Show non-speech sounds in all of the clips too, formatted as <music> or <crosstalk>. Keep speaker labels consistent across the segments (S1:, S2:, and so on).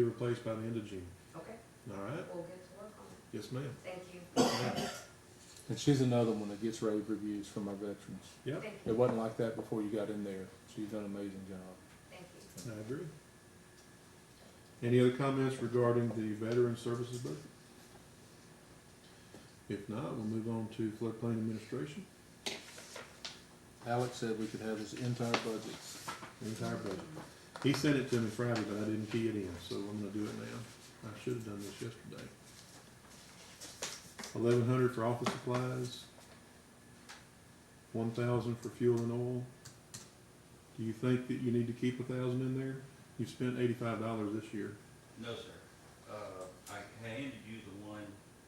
S1: Be replaced by the end of June.
S2: Okay,
S1: All right?
S2: we'll get to work on it.
S1: Yes, ma'am.
S2: Thank you.
S3: And she's another one that gets rave reviews from our veterans.
S1: Yep,
S2: Thank
S3: It
S2: you.
S3: wasn't like that before you got in there. She's done an amazing job.
S2: Thank you.
S1: I agree. Any other comments regarding the veteran services budget? If not, we'll move on to floodplain administration,
S3: Alex said we could have his entire budget.
S1: the entire budget. He sent it to me Friday, but I didn't key it in, so I'm gonna do it now. I should have done this yesterday. Eleven hundred for office supplies, one thousand for fuel and oil. Do you think that you need to keep a thousand in there? You've spent eighty-five dollars this year.
S4: No, sir. Uh, I handed you the one,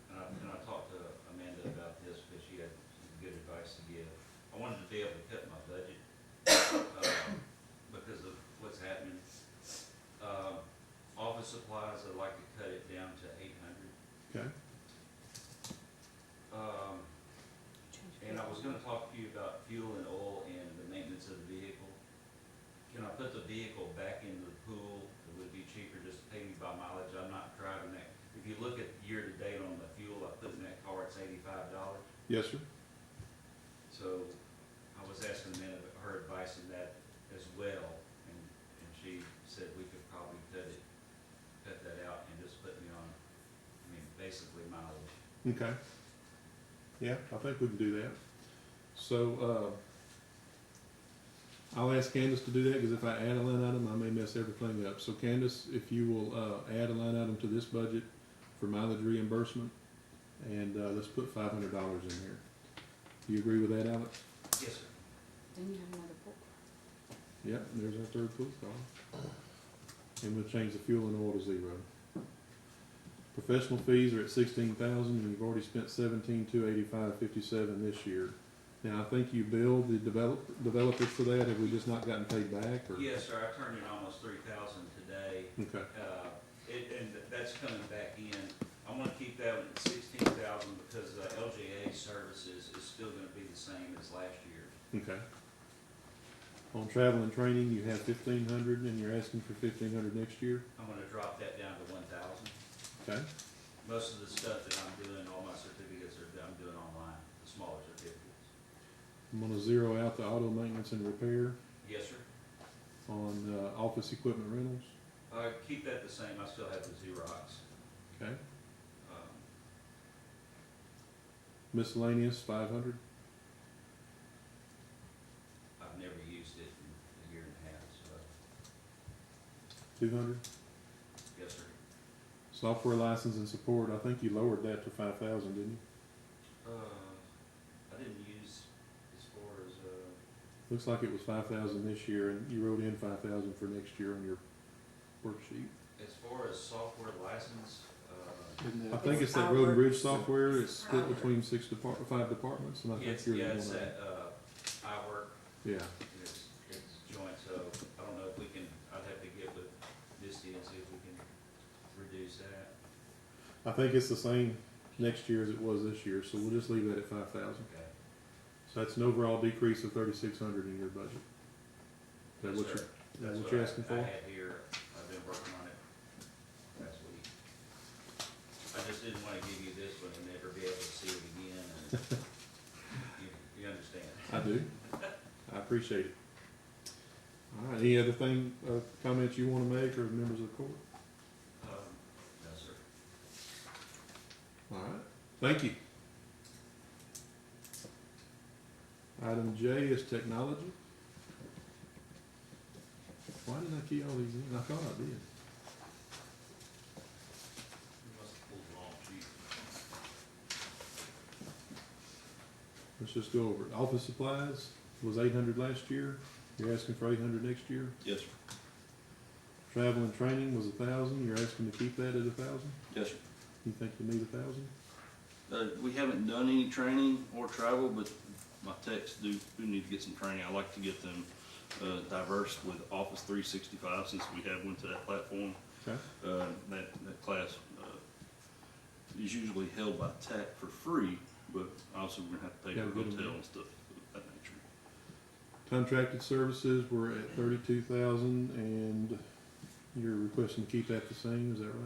S4: and I, and I talked to Amanda about this, because she had some good advice to give. I wanted to be able to cut my budget, uh, because of what's happening. Um, office supplies, I'd like to cut it down to eight hundred.
S1: Okay,
S4: Um, and I was gonna talk to you about fuel and oil and the maintenance of the vehicle. Can I put the vehicle back into the pool? It would be cheaper just to pay me by mileage. I'm not driving that. If you look at year-to-date on the fuel I put in that car, it's eighty-five dollars.
S1: yes, sir.
S4: So I was asking them her advice on that as well, and, and she said we could probably cut it, cut that out and just put me on, I mean, basically mileage.
S1: Okay. Yeah, I think we can do that. So, uh, I'll ask Candace to do that, because if I add a line item, I may mess everything up. So Candace, if you will, uh, add a line item to this budget for mileage reimbursement, and, uh, let's put five hundred dollars in here. Do you agree with that, Alex?
S4: Yes, sir.
S5: Then you have another book.
S1: Yeah, there's our third police call. And we'll change the fuel and oil to zero. Professional fees are at sixteen thousand, and you've already spent seventeen, two eighty-five, fifty-seven this year. Now, I think you billed the develop, developers for that, have we just not gotten paid back, or?
S4: Yes, sir. I turned in almost three thousand today.
S1: Okay,
S4: Uh, it, and that's coming back in. I wanna keep that one at sixteen thousand because uh, the LGA services is still gonna be the same as last year.
S1: okay. On travel and training, you have fifteen hundred, and you're asking for fifteen hundred next year,
S4: I'm gonna drop that down to one thousand.
S1: okay?
S4: Most of the stuff that I'm doing, all my certificates are, I'm doing online, the smaller certificates.
S1: I'm gonna zero out the auto maintenance and repair
S4: Yes, sir.
S1: on, uh, office equipment rentals,
S4: Uh, keep that the same. I still have the Xerox.
S1: okay?
S4: Um,
S1: Miscellaneous, five hundred.
S4: I've never used it in a year and a half, so,
S1: Two hundred.
S4: yes, sir.
S1: Software license and support, I think you lowered that to five thousand, didn't you?
S4: Uh, I didn't use as far as, uh,
S1: Looks like it was five thousand this year, and you wrote in five thousand for next year on your worksheet.
S4: As far as software license, uh,
S3: Isn't
S1: I
S3: that,
S1: think it's that road and bridge software, it's split
S2: Howard.
S1: between six depart, five departments, and I think
S4: it's,
S1: you're the
S4: yeah,
S1: one.
S4: it's
S1: of them.
S4: at, uh, I work,
S1: Yeah,
S4: it's, it's joint, so I don't know if we can, I'd have to get with Misty and see if we can reduce that.
S1: I think it's the same next year as it was this year, so we'll just leave that at five thousand.
S4: Okay.
S1: So that's an overall decrease of thirty-six hundred in your budget. Is that
S4: Yes,
S1: what you're,
S4: sir.
S1: is that
S4: That's
S1: what you're
S4: I-
S1: asking
S4: I
S1: for?
S4: had here, I've been working on it last week. I just didn't wanna give you this one and never be able to see it again,
S1: <laughs>
S4: and you, you understand.
S1: I do. I appreciate it. All right, any other thing, uh, comments you wanna make or members of the court?
S4: Um, no, sir.
S1: All right, thank you. Item J is technology. Why did I key all these in? I thought I did.
S4: You must have pulled the wrong sheet.
S1: Let's just go over it. Office supplies was eight hundred last year. You're asking for eight hundred next year.
S6: Yes, sir.
S1: Travel and training was a thousand. You're asking to keep that at a thousand?
S6: Yes, sir.
S1: You think you need a thousand?
S6: Uh, we haven't done any training or travel, but my techs do, do need to get some training. I like to get them, uh, diverse with Office three sixty-five since we have went to that platform.
S1: Okay,
S6: Uh, that, that class, uh, is usually held by tech for free, but also we're gonna have to pay
S1: Yeah,
S6: for
S1: we get 'em.
S6: hotel and stuff of that nature.
S1: Contracted services were at thirty-two thousand and You're requesting to keep that the same, is that right?